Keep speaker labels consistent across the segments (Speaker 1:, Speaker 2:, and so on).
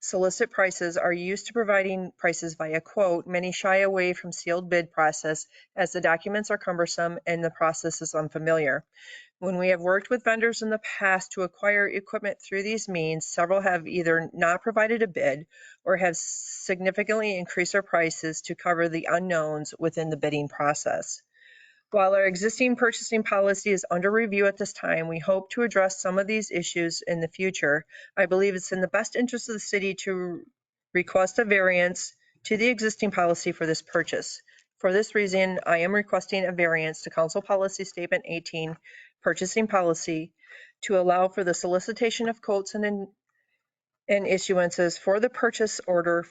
Speaker 1: Solicit prices are used to providing prices via quote. Many shy away from sealed bid process as the documents are cumbersome and the process is unfamiliar. When we have worked with vendors in the past to acquire equipment through these means, several have either not provided a bid or have significantly increased their prices to cover the unknowns within the bidding process. While our existing purchasing policy is under review at this time, we hope to address some of these issues in the future. I believe it's in the best interest of the city to request a variance to the existing policy for this purchase. For this reason, I am requesting a variance to Council Policy Statement 18, Purchasing Policy, to allow for the solicitation of quotes and in- and issuances for the purchase order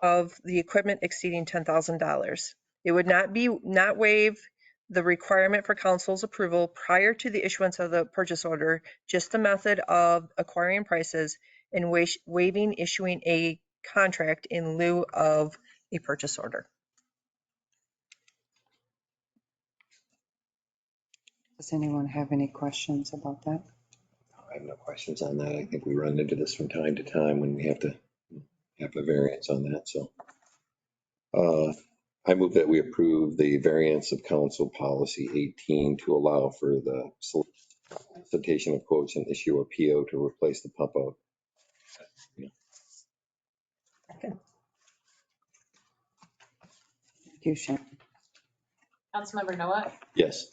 Speaker 1: of the equipment exceeding $10,000. It would not be, not waive the requirement for council's approval prior to the issuance of the purchase order, just the method of acquiring prices and wa- waiving issuing a contract in lieu of a purchase order.
Speaker 2: Does anyone have any questions about that?
Speaker 3: I have no questions on that. I think we run into this from time to time when we have to have a variance on that, so. Uh, I move that we approve the variance of council policy 18 to allow for the solicitation of quotes and issue a PO to replace the pump out.
Speaker 2: Thank You, Shannon.
Speaker 4: Councilmember Noah,
Speaker 3: Yes.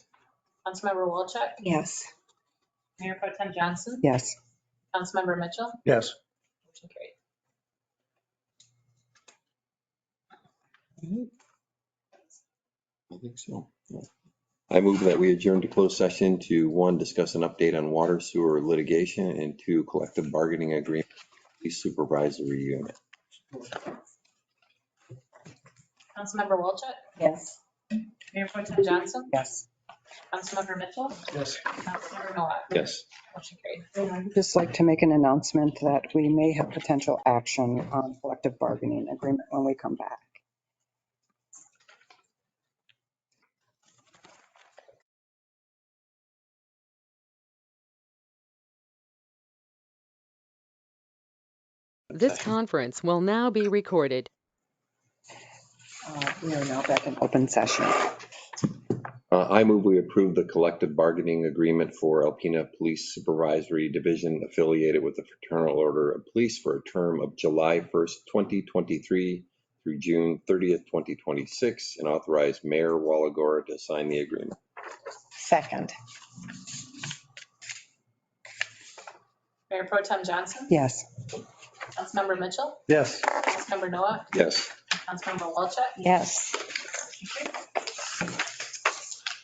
Speaker 4: Councilmember Wolchek,
Speaker 2: Yes.
Speaker 4: Mayor Pro Tem Johnson,
Speaker 2: Yes.
Speaker 4: Councilmember Mitchell,
Speaker 5: Yes.
Speaker 4: motion carried.
Speaker 3: I think so. yeah. I move that we adjourn to closed session to, one, discuss an update on water sewer litigation, and two, collective bargaining agreement, police supervisory unit.
Speaker 4: Councilmember Wolchek,
Speaker 2: Yes.
Speaker 4: Mayor Pro Tem Johnson,
Speaker 2: Yes.
Speaker 4: Councilmember Mitchell,
Speaker 5: Yes.
Speaker 4: Councilmember Noah,
Speaker 3: Yes.
Speaker 4: motion carried.
Speaker 2: I'd just like to make an announcement that we may have potential action on collective bargaining agreement when we come back.
Speaker 6: This
Speaker 3: Second.
Speaker 6: conference will now be recorded.
Speaker 2: Uh, We are now back in open session.
Speaker 3: Uh, I move we approve the collective bargaining agreement for Alpena Police Supervisory Division affiliated with the Fraternal Order of Police for a term of July 1st, 2023 through June 30th, 2026, and authorize Mayor Walagora to sign the agreement.
Speaker 2: Second.
Speaker 4: Mayor Pro Tem Johnson,
Speaker 2: Yes.
Speaker 4: Councilmember Mitchell,
Speaker 5: Yes.
Speaker 4: Councilmember Noah,
Speaker 3: Yes.
Speaker 4: Councilmember Wolchek,
Speaker 2: Yes.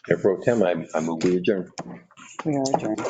Speaker 3: Mayor Pro Tem, I I move we adjourn.
Speaker 2: We are adjourned.